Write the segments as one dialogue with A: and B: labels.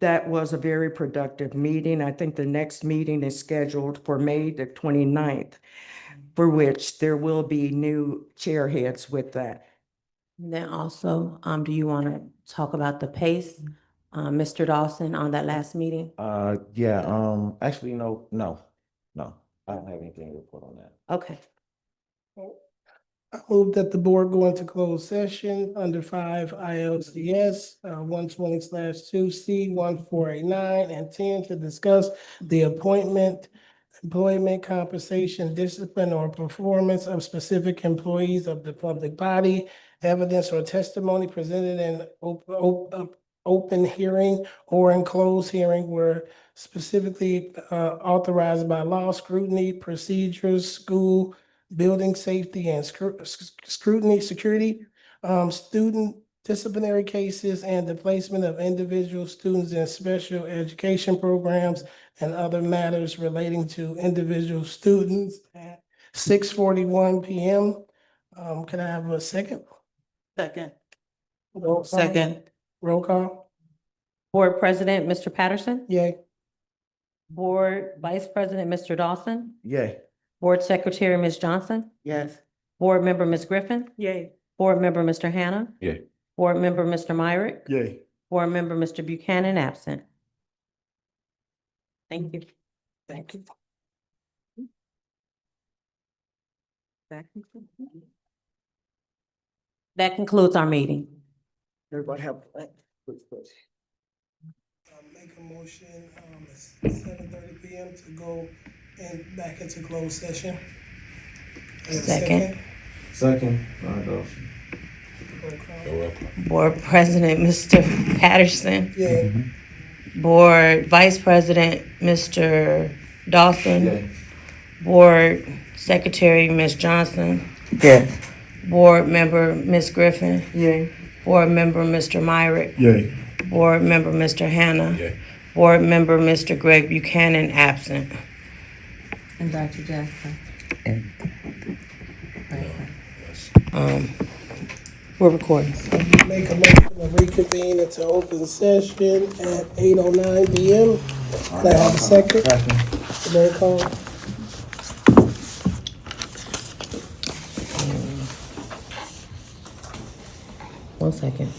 A: that was a very productive meeting. I think the next meeting is scheduled for May the 29th, for which there will be new chair heads with that.
B: And Then also, um, do you want to talk about the pace, uh, Mr. Dawson on that last meeting?
C: Uh, yeah, um, actually, no, no, no, I don't have anything to report on that.
B: Okay,
D: I move that the board go into closed session under five ILCS uh, one twenty two C one four eight nine and ten to discuss the appointment, employment compensation, discipline or performance of specific employees of the public body, evidence or testimony presented in op- op- op- open hearing or in closed hearing where specifically uh, authorized by law, scrutiny, procedures, school, building safety and scru- sc- scrutiny, security, um, student disciplinary cases, and the placement of individual students in special education programs and other matters relating to individual students at six forty-one PM. Um, can I have a second?
E: Second.
D: Roll call?
E: Second.
D: Roll call?
B: Board President, Mr. Patterson,
D: Yay.
B: Board Vice President, Mr. Dawson,
C: Yay.
B: Board Secretary, Ms. Johnson,
E: Yes.
B: Board Member, Ms. Griffin,
E: Yay.
B: Board Member, Mr. Hannah.
C: Yay.
B: Board Member, Mr. Myrick,
C: Yay.
B: Board Member, Mr. Buchanan, absent. Thank you.
D: Thank you.
B: That concludes our meeting.
E: Everybody have.
D: um, make a motion, um, at seven thirty PM to go and back into closed session. And a
B: Second.
C: Second, Ron Dawson.
D: Roll call.
B: Board President, Mr. Patterson,
D: Yeah,
B: Board Vice President, Mr. Dawson, Board Secretary, Ms. Johnson. Yes. Board Member, Ms. Griffin.
E: Yay.
B: Board Member, Mr. Myrick.
C: Yay.
B: Board Member, Mr. Hannah.
C: Yay.
B: Board Member, Mr. Greg Buchanan, absent.
E: And Dr. Jackson.
B: Um, We're recording.
D: make a motion to reconvene into open session at eight oh nine PM. Can I have a second? Roll call.
B: One second.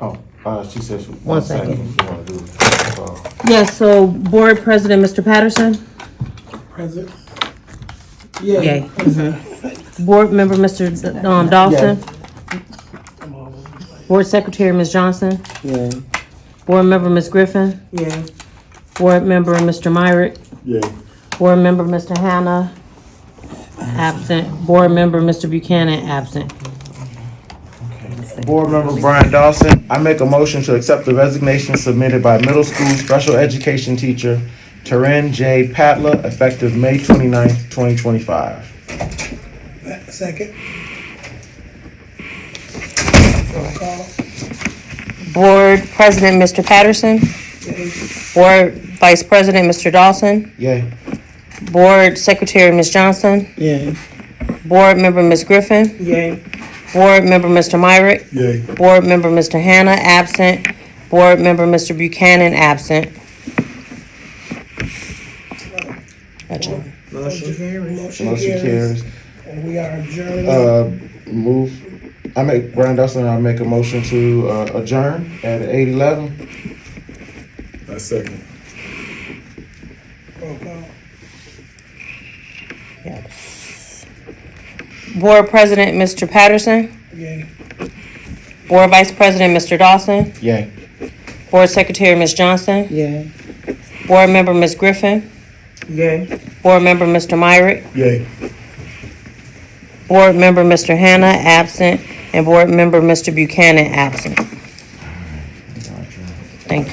C: Oh, uh, she says. she-
B: One second.
C: She wanna do it. Uh,
B: Yes, so Board President, Mr. Patterson.
D: Present.
B: Yay.
D: Yeah.
B: Board Member, Mr. D- um, Dawson. Board Secretary, Ms. Johnson.
D: Yeah.
B: Board Member, Ms. Griffin.
D: Yeah.
B: Board Member, Mr. Myrick.
C: Yay.
B: Board Member, Mr. Hannah. Absent. Board Member, Mr. Buchanan, absent.
C: Board Member Brian Dawson, I make a motion to accept the resignation submitted by middle school special education teacher Taryn J. Patla, effective May 29th, twenty-five.
D: Second. Roll call.
B: Board President, Mr. Patterson.
D: Yay.
B: Board Vice President, Mr. Dawson.
C: Yay.
B: Board Secretary, Ms. Johnson.
D: Yeah.
B: Board Member, Ms. Griffin.
D: Yay.
B: Board Member, Mr. Myrick.
C: Yay.
B: Board Member, Mr. Hannah, absent. Board Member, Mr. Buchanan, absent. Adjourn.
D: Motion carries.
C: Motion carries.
D: And we are adjourned.
C: Uh, move, I make, Brian Dawson, I make a motion to uh, adjourn at eight eleven.
F: I second.
D: Roll call.
B: Board President, Mr. Patterson.
D: Yay.
B: Board Vice President, Mr. Dawson.
C: Yay.
B: Board Secretary, Ms. Johnson.
E: Yeah.
B: Board Member, Ms. Griffin.
E: Yay.
B: Board Member, Mr. Myrick.
C: Yay.
B: Board Member, Mr. Hannah, absent. And Board Member, Mr. Buchanan, absent. Thank you.